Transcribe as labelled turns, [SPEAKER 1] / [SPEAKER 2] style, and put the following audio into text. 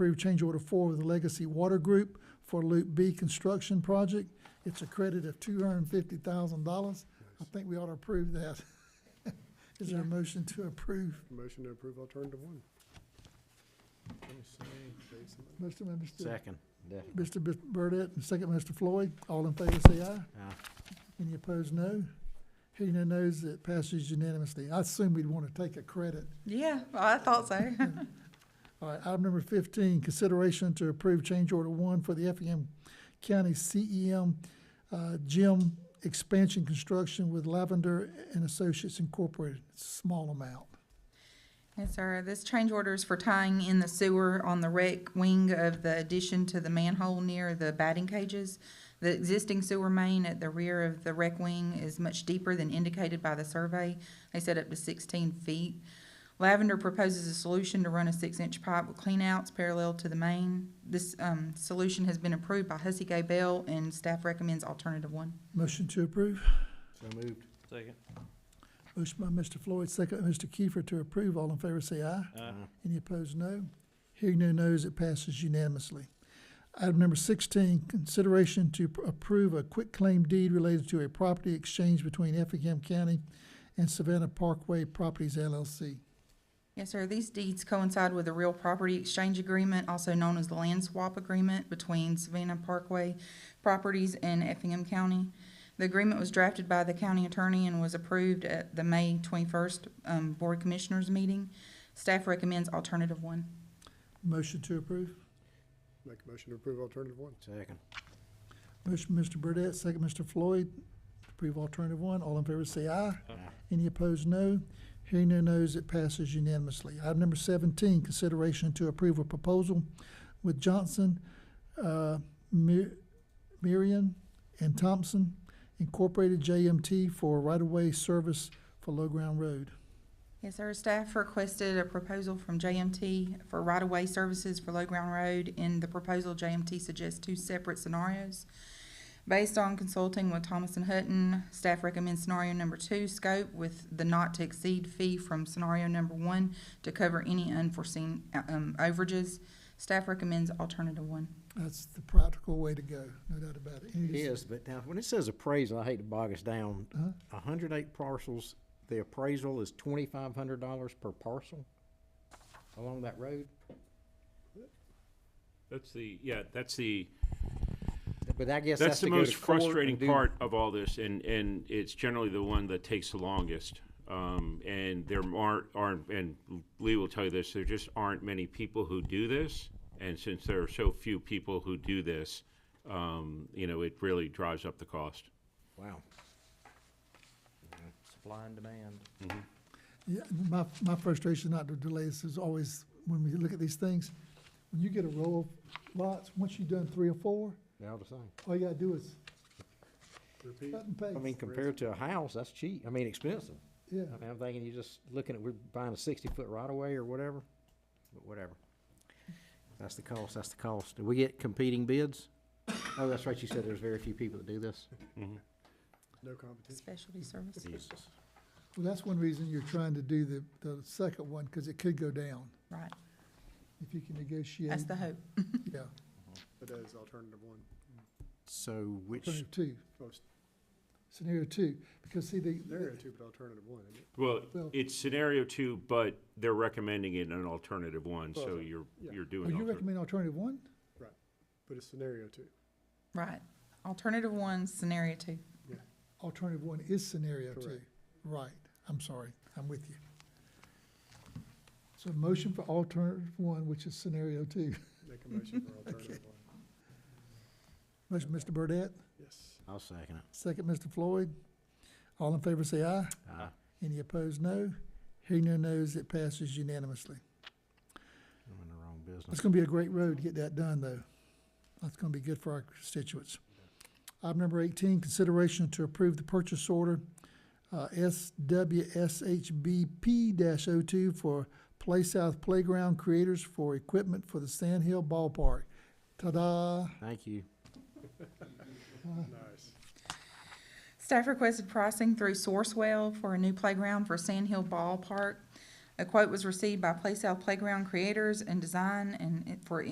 [SPEAKER 1] Approve change order four with the Legacy Water Group for Loop B construction project. It's a credit of two hundred and fifty thousand dollars. I think we ought to approve that. Is there a motion to approve?
[SPEAKER 2] Motion to approve alternative one. Jason,
[SPEAKER 1] Mr. and Mr.
[SPEAKER 3] Second.
[SPEAKER 1] Mr. Bis- Burdette and second Mr. Floyd. All in favor, say aye.
[SPEAKER 3] Aye.
[SPEAKER 1] Any opposed, no. Hearing no nos, it passes unanimously. I assume we'd want to take a credit.
[SPEAKER 4] Yeah, I thought so.
[SPEAKER 1] All right, item number fifteen, consideration to approve change order one for the Effingham County CEM uh, gym expansion construction with Lavender and Associates Incorporated, small amount.
[SPEAKER 4] Yes, sir. This change order is for tying in the sewer on the wreck wing of the addition to the manhole near the batting cages. The existing sewer main at the rear of the wreck wing is much deeper than indicated by the survey. They said up to sixteen feet. Lavender proposes a solution to run a six-inch pipe with cleanouts parallel to the main. This, um, solution has been approved by Hussey Gay Bell, and staff recommends alternative one.
[SPEAKER 1] Motion to approve.
[SPEAKER 3] So moved. Second.
[SPEAKER 1] Motion by Mr. Floyd, second by Mr. Kiefer to approve. All in favor, say aye. Any opposed, no. Hearing no nos, it passes unanimously. Item number sixteen, consideration to pr- approve a quitclaim deed related to a property exchange between Effingham County and Savannah Parkway Properties LLC.
[SPEAKER 4] Yes, sir. These deeds coincide with a real property exchange agreement, also known as the land swap agreement between Savannah Parkway Properties and Effingham County. The agreement was drafted by the county attorney and was approved at the May twenty-first, um, Board Commissioners meeting. Staff recommends alternative one.
[SPEAKER 1] Motion to approve.
[SPEAKER 2] Make a motion to approve alternative one.
[SPEAKER 3] Second.
[SPEAKER 1] Motion, Mr. Burdette, second, Mr. Floyd. to Approve alternative one. All in favor, say aye. Any opposed, no. Hearing no nos, it passes unanimously. Item number seventeen, consideration to approve a proposal with Johnson, uh, Mi- Miriam and Thompson Incorporated JMT for right-of-way service for Low Ground Road.
[SPEAKER 4] Yes, sir. Staff requested a proposal from JMT for right-of-way services for Low Ground Road. In the proposal, JMT suggests two separate scenarios. Based on consulting with Thomas and Hutton, staff recommends scenario number two scope with the not-to-exceed fee from scenario number one to cover any unforeseen, uh, um, overages. Staff recommends alternative one.
[SPEAKER 1] That's the practical way to go, no doubt about it.
[SPEAKER 3] It
[SPEAKER 1] Any-
[SPEAKER 3] is, but now, when it says appraisal, I hate to bog us down.
[SPEAKER 1] Uh-huh.
[SPEAKER 3] A hundred eight parcels, the appraisal is twenty-five hundred dollars per parcel along that road?
[SPEAKER 5] That's the, yeah, that's the,
[SPEAKER 3] But I guess that's
[SPEAKER 5] that's the
[SPEAKER 3] to go to
[SPEAKER 5] most
[SPEAKER 3] court and
[SPEAKER 5] frustrating
[SPEAKER 3] do-
[SPEAKER 5] part of all this, and, and it's generally the one that takes the longest. Um, and there aren't, aren't, and Lee will tell you this, there just aren't many people who do this. And since there are so few people who do this, um, you know, it really drives up the cost.
[SPEAKER 3] Wow. Supply and demand.
[SPEAKER 1] Yeah, my, my frustration, not to delay this, is always when we look at these things, when you get a row of lots, once you've done three or four,
[SPEAKER 3] They're all the same.
[SPEAKER 1] all you gotta do is
[SPEAKER 2] Repeat.
[SPEAKER 1] cut and
[SPEAKER 3] I mean,
[SPEAKER 1] paste.
[SPEAKER 3] compared to a house, that's cheap. I mean, expensive.
[SPEAKER 1] Yeah,
[SPEAKER 3] I mean, I'm thinking you're just looking at, we're buying a sixty-foot right-of-way or whatever, but whatever. That's the cost, that's the cost. Do we get competing bids? Oh, that's right, you said there's very few people that do this.
[SPEAKER 2] No competition.
[SPEAKER 4] Specialty services.
[SPEAKER 1] well, that's one reason you're trying to do the, the second one, because it could go down,
[SPEAKER 4] Right,
[SPEAKER 1] if you can negotiate.
[SPEAKER 4] that's the hope.
[SPEAKER 1] Yeah,
[SPEAKER 2] That is alternative one.
[SPEAKER 3] So which,
[SPEAKER 1] scenario two,
[SPEAKER 2] Oh, it's-
[SPEAKER 1] scenario two, because see, the,
[SPEAKER 2] There are two, but alternative one, isn't it?
[SPEAKER 5] Well,
[SPEAKER 1] Well-
[SPEAKER 5] it's scenario two, but they're recommending it in an alternative one, so
[SPEAKER 2] Well,
[SPEAKER 5] you're,
[SPEAKER 2] yeah.
[SPEAKER 5] you're
[SPEAKER 1] oh,
[SPEAKER 5] doing.
[SPEAKER 1] you
[SPEAKER 5] alter-
[SPEAKER 1] recommend alternative one?
[SPEAKER 2] But it's scenario two.
[SPEAKER 4] Right. Alternative one, scenario two.
[SPEAKER 1] Alternative one is scenario two.
[SPEAKER 2] Correct.
[SPEAKER 1] Right, I'm sorry, I'm with you. So motion for alternative one, which is scenario two.
[SPEAKER 2] Make a motion for alternative one.
[SPEAKER 1] Motion, Mr. Burdette?
[SPEAKER 2] Yes.
[SPEAKER 3] I'll second it.
[SPEAKER 1] Second, Mr. Floyd. All in favor, say aye.
[SPEAKER 3] Aye.
[SPEAKER 1] Any opposed, no. Hearing no nos, it passes unanimously.
[SPEAKER 3] I'm in the wrong
[SPEAKER 1] It's
[SPEAKER 3] business.
[SPEAKER 1] gonna be a great road to get that done, though. That's gonna be good for our constituents. Item number eighteen, consideration to approve the purchase order, uh, SWSHBP 2 for Play South Playground Creators for equipment for the Sand Hill Ballpark. Ta-da!
[SPEAKER 3] Thank you.
[SPEAKER 2] Nice.
[SPEAKER 4] Staff requested pricing through Sourcewell for a new playground for Sand Hill Ballpark. A quote was received by Play South Playground Creators and Design and it- for